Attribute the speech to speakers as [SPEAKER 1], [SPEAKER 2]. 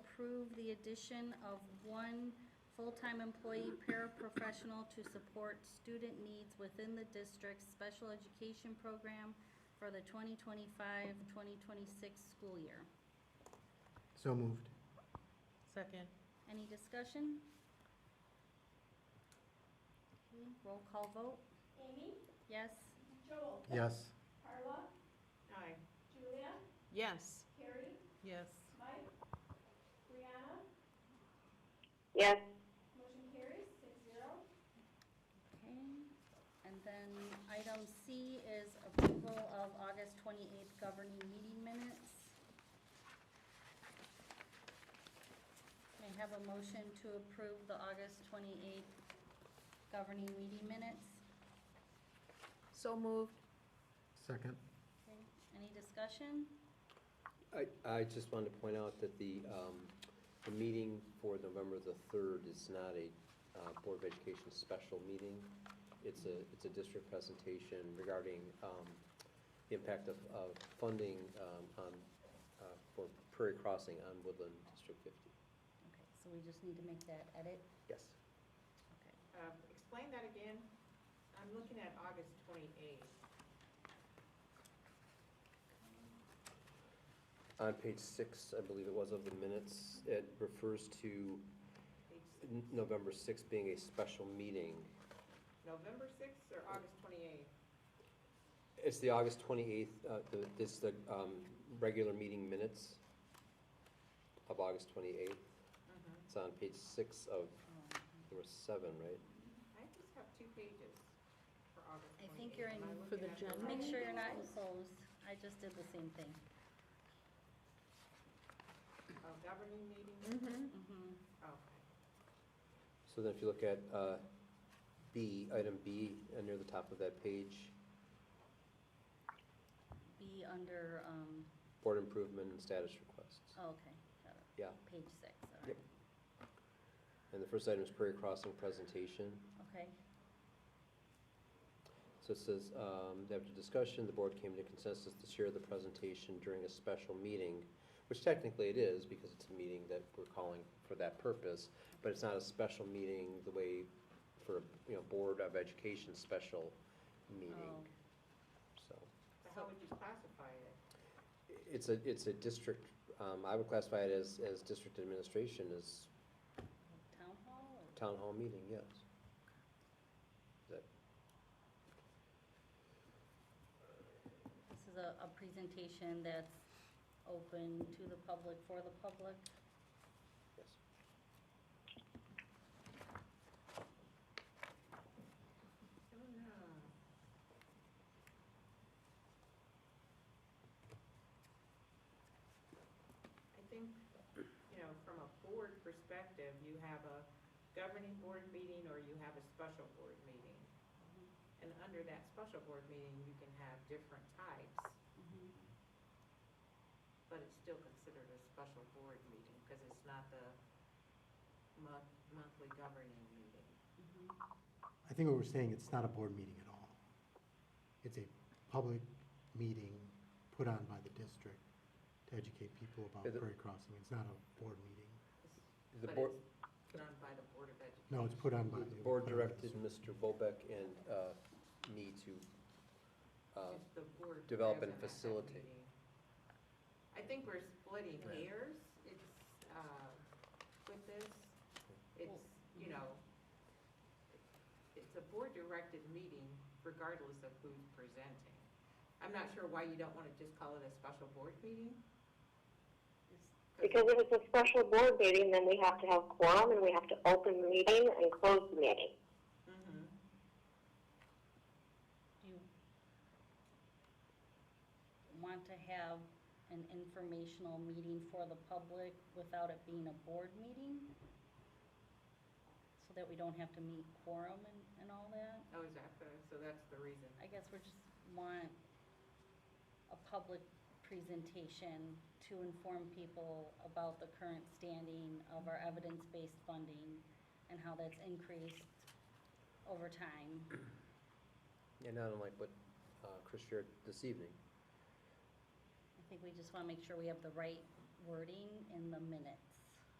[SPEAKER 1] approve the addition of one full-time employee paraprofessional to support student needs within the district's special education program for the 2025-2026 school year.
[SPEAKER 2] So moved.
[SPEAKER 3] Second.
[SPEAKER 1] Any discussion? Okay, Roll call vote,
[SPEAKER 4] Amy,
[SPEAKER 1] yes?
[SPEAKER 4] Joel,
[SPEAKER 2] Yes.
[SPEAKER 4] Carla,
[SPEAKER 3] Aye.
[SPEAKER 4] Julia,
[SPEAKER 3] Yes.
[SPEAKER 4] Carrie,
[SPEAKER 3] Yes.
[SPEAKER 4] Mike, Brianna,
[SPEAKER 5] yes,
[SPEAKER 4] motion carries six zero.
[SPEAKER 1] Okay, and then item C is approval of August 28th governing meeting minutes. May I have a motion to approve the August 28th governing meeting minutes?
[SPEAKER 3] So moved.
[SPEAKER 2] Second.
[SPEAKER 1] Okay, Any discussion?
[SPEAKER 6] I, I just wanted to point out that the, um, the meeting for November the third is not a, uh, Board of Education special meeting. It's a, it's a district presentation regarding, um, the impact of, of funding, um, on, uh, for Prairie Crossing on Woodland District fifty.
[SPEAKER 1] Okay, so we just need to make that edit?
[SPEAKER 6] Yes.
[SPEAKER 1] Okay.
[SPEAKER 7] Uh, Explain that again. I'm looking at August 28th.
[SPEAKER 6] On page six, I believe it was of the minutes, it refers to
[SPEAKER 7] It's
[SPEAKER 6] N- November sixth being a special meeting.
[SPEAKER 7] November 6th or August 28th?
[SPEAKER 6] It's the August 28th, uh, the- this, the um, regular meeting minutes of August 28th.
[SPEAKER 4] Mm-hmm.
[SPEAKER 6] It's on page six of,
[SPEAKER 1] Um,
[SPEAKER 6] there were seven, right?
[SPEAKER 7] I just have two pages for August 28th.
[SPEAKER 1] I think you're in-
[SPEAKER 7] Am I
[SPEAKER 3] For the
[SPEAKER 7] looking at
[SPEAKER 3] general.
[SPEAKER 7] right-
[SPEAKER 1] Make sure you're not enclosed. I just did the same thing.
[SPEAKER 7] Oh, governing meeting?
[SPEAKER 3] Mm-hmm.
[SPEAKER 1] Mm-hmm.
[SPEAKER 7] Okay.
[SPEAKER 6] So then if you look at uh, B, item B, uh, near the top of that page,
[SPEAKER 1] Be under, um,
[SPEAKER 6] board improvement and status requests.
[SPEAKER 1] oh, okay, got it.
[SPEAKER 6] Yeah,
[SPEAKER 1] Page six, all right.
[SPEAKER 6] Yep. and the first item is Prairie Crossing presentation.
[SPEAKER 1] Okay,
[SPEAKER 6] So it says, um, after discussion, the board came to consensus to share the presentation during a special meeting, which technically it is, because it's a meeting that we're calling for that purpose, but it's not a special meeting the way for, you know, Board of Education special
[SPEAKER 1] oh,
[SPEAKER 6] meeting, so.
[SPEAKER 7] So how would you classify it?
[SPEAKER 6] It's a, it's a district, um, I would classify it as, as district administration, as
[SPEAKER 1] town hall or?
[SPEAKER 6] town hall meeting, yes. That-
[SPEAKER 1] This is a, a presentation that's open to the public, for the public.
[SPEAKER 6] Yes.
[SPEAKER 7] Oh, no. I think, you know, from a board perspective, you have a governing board meeting or you have a special board meeting. And under that special board meeting, you can have different types, but it's still considered a special board meeting because it's not the mon- monthly governing meeting.
[SPEAKER 2] I think what we're saying, it's not a board meeting at all. It's a public meeting put on by the district to educate people about
[SPEAKER 6] Yeah, the-
[SPEAKER 2] Prairie Crossing. It's not a board meeting.
[SPEAKER 7] It's-
[SPEAKER 6] The
[SPEAKER 7] but
[SPEAKER 6] board,
[SPEAKER 7] it's Done by the Board of Education.
[SPEAKER 2] No, it's put on by.
[SPEAKER 6] The board directed Mr. Bobek and uh, me to, uh,
[SPEAKER 7] If the board
[SPEAKER 6] develop and
[SPEAKER 7] doesn't have that
[SPEAKER 6] facilitate.
[SPEAKER 7] meeting. I think we're splitting
[SPEAKER 6] Right.
[SPEAKER 7] hairs, it's, uh, with this, it's, you know, it's a board-directed meeting regardless of who's presenting. I'm not sure why you don't wanna just call it a special board meeting.
[SPEAKER 5] because if it's a special board meeting, then we have to have quorum and we have to open the meeting and close the meeting.
[SPEAKER 7] Mhm.
[SPEAKER 1] Do you want to have an informational meeting for the public without it being a board meeting? So that we don't have to meet quorum and, and all that?
[SPEAKER 7] Oh, is that the, so that's the reason.
[SPEAKER 1] I guess we're just want a public presentation to inform people about the current standing of our evidence-based funding and how that's increased over time.
[SPEAKER 6] and not unlike what uh, Chris shared this evening.
[SPEAKER 1] I think we just want to make sure we have the right wording in the minutes.